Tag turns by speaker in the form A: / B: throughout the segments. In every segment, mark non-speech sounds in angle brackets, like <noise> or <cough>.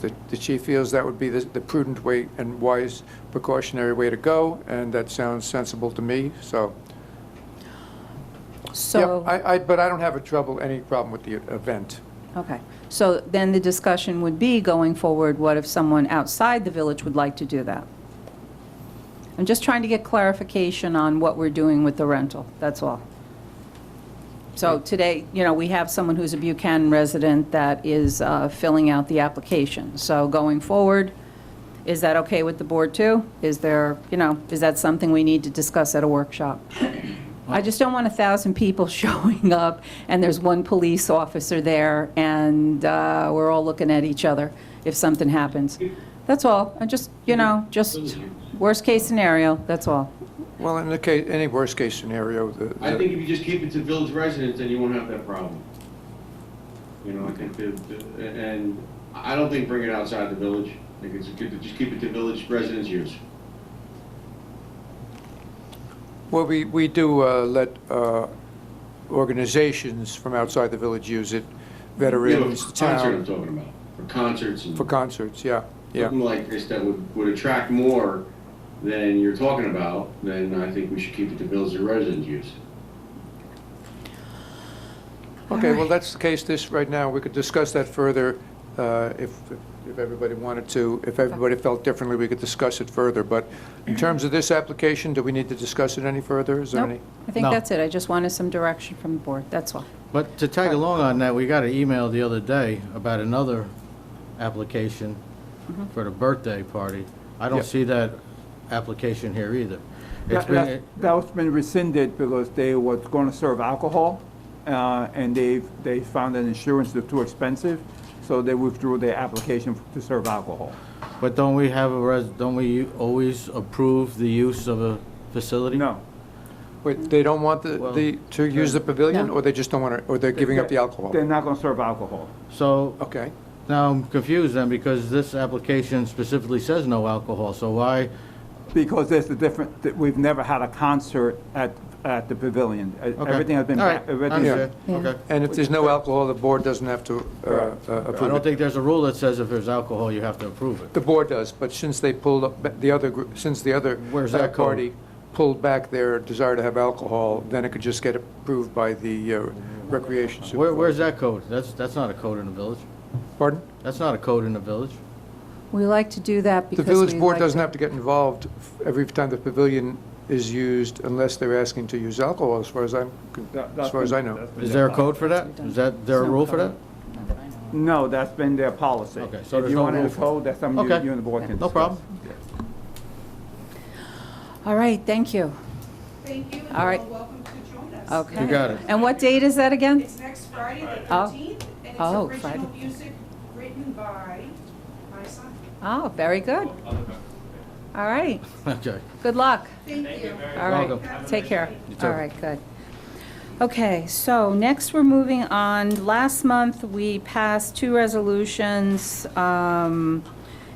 A: The the chief feels that would be the the prudent way and wise precautionary way to go, and that sounds sensible to me, so. Yep,
B: So,
A: I, I- but I don't have a trouble, any problem with the event.
B: okay. So then the discussion would be going forward, what if someone outside the village would like to do that? I'm just trying to get clarification on what we're doing with the rental, that's all. So today, you know, we have someone who's a Buchanan resident that is uh, filling out the application. So going forward, is that okay with the board too? Is there, you know, is that something we need to discuss at a workshop? I just don't want a 1,000 people <laughs> showing up, and there's one police officer there, and uh, we're all looking at each other if something happens. That's all. I just, you know, just worst-case scenario, that's all.
A: Well, in the case, any worst-case scenario, the.
C: I think if you just keep it to village residents, then you won't have that problem. You know, I think the, the- and I don't think bring it outside the village. I think it's good to just keep it to village residents' use.
A: Well, we, we do uh, let uh, organizations from outside the village use it,
C: You know,
A: veterans, the
C: Concert I'm
A: town,
C: talking about, for concerts and
A: for concerts, yeah, yeah.
C: something like this that would, would attract more than you're talking about, then I think we should keep it to village residents' use.
A: Okay, well, that's the case this, right now, we could discuss that further uh, if, if everybody wanted to. If everybody felt differently, we could discuss it further, but in terms of this application, do we need to discuss it any further? Is there any?
B: Nope, I think
D: No.
B: that's it. I just wanted some direction from the board, that's all.
D: But to tag along on that, we got an email the other day about another application
E: Mm-hmm.
D: for the birthday party. I
A: Yeah.
D: don't see that application here either. It's
E: That-
D: been,
E: That that's been rescinded because they was going to serve alcohol, uh, and they, they found that insurance was too expensive, so they withdrew their application to serve alcohol.
D: but don't we have a, res? don't we always approve the use of a facility?
E: No,
A: Wait, they don't want the,
D: Well,
A: the to use the pavilion,
B: No.
A: or they just don't want to, or they're giving up the alcohol?
E: they're not going to serve alcohol.
D: So
A: Okay.
D: now I'm confused then, because this application specifically says no alcohol, so why,
E: Because there's a different, that we've never had a concert at, at the pavilion. Uh,
D: okay.
E: Everything has been.
D: All right,
E: everything-
D: understood.
B: Yeah.
D: okay.
A: And if there's no alcohol, the board doesn't have to uh, uh,
D: I don't
A: approve it.
D: think there's a rule that says if there's alcohol, you have to approve it.
A: The board does, but since they pulled up, the other, gr- since the other
D: Where's
A: uh,
D: that code?
A: party pulled back their desire to have alcohol, then it could just get approved by the uh, recreation
D: Where,
A: supervisor.
D: where's that code? That's, that's not a code in the village.
A: Pardon?
D: That's not a code in the village.
B: We like to do that
A: The
B: because
A: village
B: we
A: board
B: like
A: doesn't
B: to-
A: have to get involved every time the pavilion is used unless they're asking to use alcohol, as far as I'm, con-
E: That- that's
A: as far as
E: been-
A: I know.
E: that's been
D: Is
E: their
D: there a code for that? Is that, there a
B: There's no
D: rule for
B: code.
D: that?
E: policy. No, that's been their policy.
D: Okay, so there's no
E: If you
D: rule
E: want to
D: for-
E: code, that's something you
D: Okay.
E: you and the board can
D: No
E: discuss.
D: problem.
B: All right, thank you.
F: Thank you, and
B: All
F: you're
B: right.
F: all welcome to join us.
B: Okay.
D: You got it.
B: And what date is that again?
F: It's next Friday, the
B: Oh.
F: 13th,
B: Oh,
F: and it's
B: Friday.
F: original music written by my son.
B: Oh, very good. All right,
D: <laughs> Okay.
B: good luck.
F: Thank you.
B: All right,
D: Welcome.
B: take care.
D: You too.
B: All right, good. Okay, so next we're moving on. Last month, we passed two resolutions, um,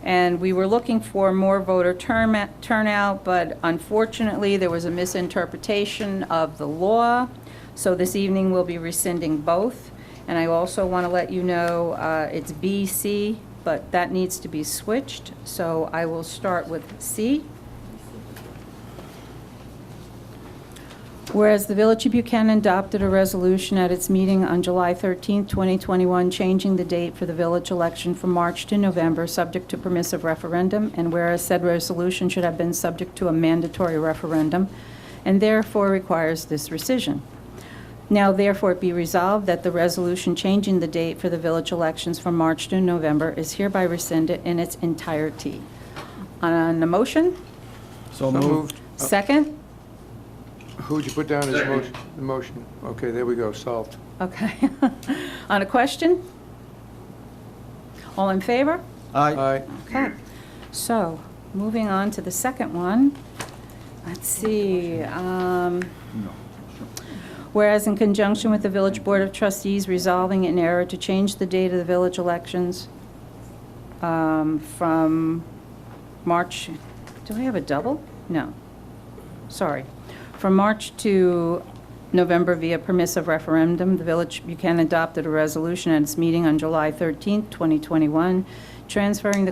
B: and we were looking for more voter turn- turnout, but unfortunately, there was a misinterpretation of the law, so this evening we'll be rescinding both. And I also want to let you know, uh, it's B, C, but that needs to be switched, so I will start with C. Whereas the Village of Buchanan adopted a resolution at its meeting on July 13, 2021, changing the date for the village election from March to November, subject to permissive referendum, and whereas said resolution should have been subject to a mandatory referendum, and therefore requires this rescission. Now therefore be resolved that the resolution changing the date for the village elections from March to November is hereby rescinded in its entirety. On a motion?
A: So
D: So moved.
A: moved.
B: Second?
A: Who'd you put down as
C: Second.
A: motion, the motion? Okay, there we go, solved.
B: Okay. <laughs> On a question? All in favor?
D: Aye.
A: Aye.
B: Okay. So, moving on to the second one. Let's see. um, Whereas in conjunction with the Village Board of Trustees resolving in error to change the date of the village elections um, from March, do I have a double? No. Sorry. From March to November via permissive referendum, the Village Buchanan adopted a resolution at its meeting on July 13, 2021, transferring the